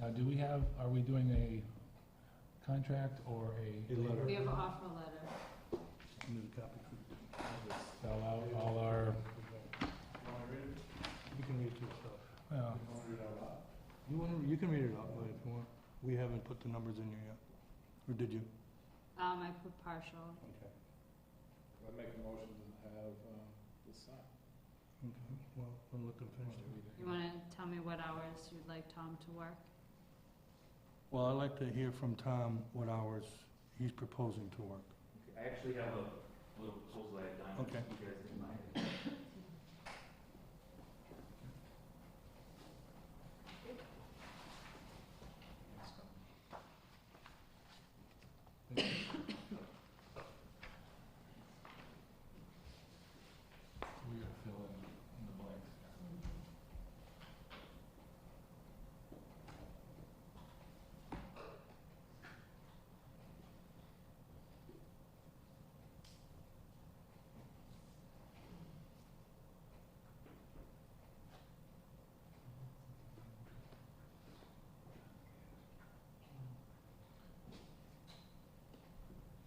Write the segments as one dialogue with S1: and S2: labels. S1: Now, do we have, are we doing a contract or a?
S2: A letter.
S3: We have an offer letter.
S1: Spell out all our,
S2: You can read it to yourself.
S1: well,
S2: You want, you can read it out loud if you want. We haven't put the numbers in here yet. Or did you?
S3: Um, I put partial.
S2: Okay.
S4: I make a motion to have, um, this sign.
S2: Okay, well, then let them finish it.
S3: You wanna tell me what hours you'd like Tom to work?
S2: Well, I'd like to hear from Tom what hours he's proposing to work.
S5: I actually have a little proposal I had done.
S2: Okay.
S5: You guys didn't mind.
S1: we are filling in the blanks.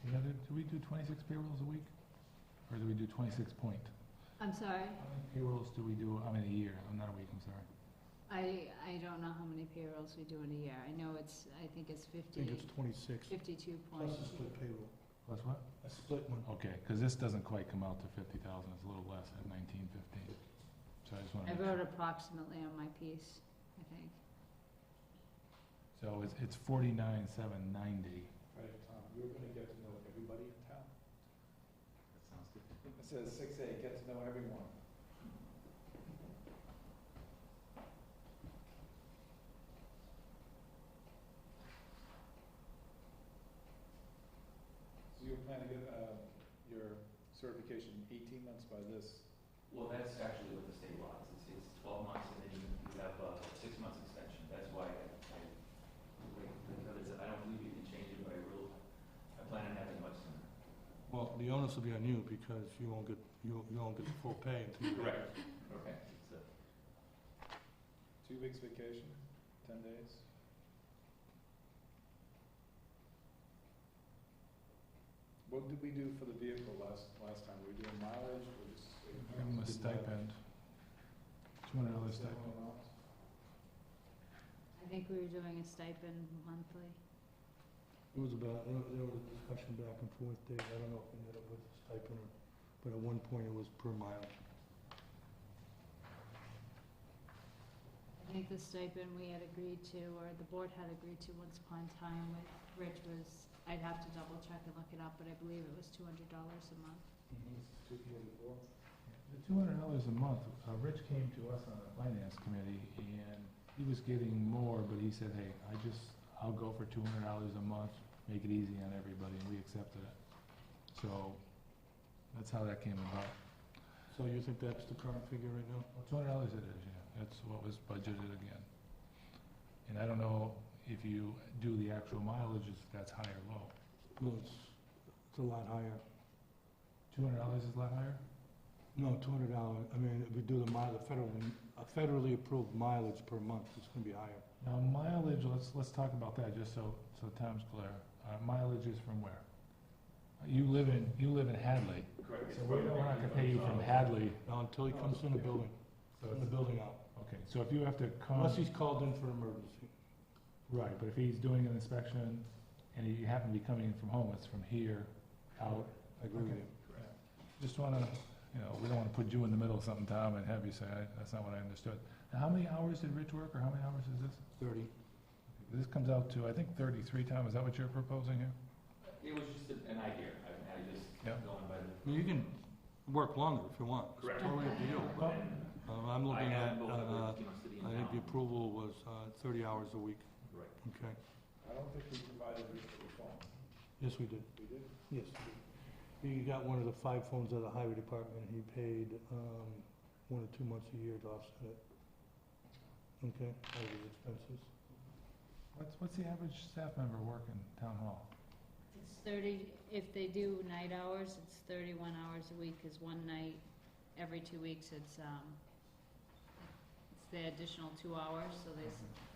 S1: The other, do we do twenty-six payrolls a week? Or do we do twenty-six point?
S3: I'm sorry,
S1: How many payrolls do we do, I mean, a year, I'm not a week, I'm sorry.
S3: I, I don't know how many payrolls we do in a year. I know it's, I think it's
S2: I think it's
S3: fifty,
S2: twenty-six,
S3: fifty-two
S2: plus
S3: point.
S2: a split payroll.
S1: Plus what?
S2: A split one.
S1: Okay, because this doesn't quite come out to fifty thousand, it's a little less at nineteen fifteen. So I just want
S3: I
S1: to make
S3: wrote
S1: sure.
S3: approximately on my piece, I think.
S1: So it's, it's forty-nine, seven ninety.
S4: Right, Tom, you're gonna get to know everybody in town.
S5: That sounds good.
S4: It says six A, get to know everyone. So you plan to get, uh, your certification eighteen months by this,
S5: Well, that's actually what the state law is. It's, it's twelve months and then you you have a six months extension. That's why I, I, like, the others, I don't believe you can change it by rule. I plan on having much sooner.
S2: Well, the onus will be on you because you won't get, you, you won't get the full pay until you.
S5: Correct. Okay. It's a-
S4: two weeks vacation, ten days? What did we do for the vehicle last, last time? Were we doing mileage or just?
S1: Give them a stipend. Two hundred dollar stipend.
S3: I think we were doing a stipend monthly.
S2: It was about, there was- there was a discussion back and forth there, I don't know if we ended up with a stipend or, but at one point it was per mile.
S3: I think the stipend we had agreed to, or the board had agreed to once upon a time with Rich was, I'd have to double check and look it up, but I believe it was two hundred dollars a month.
S4: Two forty-four?
S1: The two hundred dollars a month, uh, Rich came to us on the finance committee, and he was getting more, but he said, hey, I just, I'll go for two hundred dollars a month, make it easy on everybody, and we accepted it. So, that's how that came about.
S2: So you think that's the current figure right now?
S1: Well, two hundred dollars it is, yeah, that's what was budgeted again. And I don't know if you do the actual mileage, if that's high or low.
S2: No, it's, it's a lot higher.
S1: Two hundred dollars is a lot higher?
S2: No, two hundred dollar, I mean, if we do the mile, the federally, a federally approved mileage per month, it's gonna be higher.
S1: Now mileage, let's, let's talk about that, just so, so Tom's clear. Uh, mileage is from where? You live in, you live in Hadley,
S5: Correct.
S1: so we're gonna have to pay you from Hadley,
S2: Now, until he comes in the building,
S1: so
S2: in the
S1: it's,
S2: building out,
S1: okay, so if you have to come.
S2: unless he's called in for emergency.
S1: Right, but if he's doing an inspection and you happen to be coming in from home, it's from here out.
S2: I agree with you.
S1: Just wanna, you know, we don't wanna put you in the middle of something, Tom, and have you say, "I- that's not what I understood. Now, how many hours did Rich work, or how many hours is this?
S2: Thirty.
S1: This comes out to, I think, thirty-three, Tom, is that what you're proposing here?
S5: It was just an an idea. I, I just
S1: Yeah.
S5: going by the.
S2: I mean, you can work longer if you want. It's
S5: Correct.
S2: Totally up to you.
S5: But then
S2: Um, I'm
S5: I
S2: looking at,
S5: am both,
S2: uh,
S5: you know, city and
S2: I think the
S5: town.
S2: approval was, uh, thirty hours a week,
S5: Right.
S2: okay?
S4: I don't think we provided this to the phone.
S2: Yes, we did.
S4: We did?
S2: Yes. He got one of the five phones of the highway department, he paid, um, one or two months a year to offset it. Okay, out of his expenses.
S1: What's, what's the average staff member work in town hall?
S3: It's thirty, if they do night hours, it's thirty-one hours a week, cause one night, every two weeks, it's, um, it's the additional two hours, so they, s-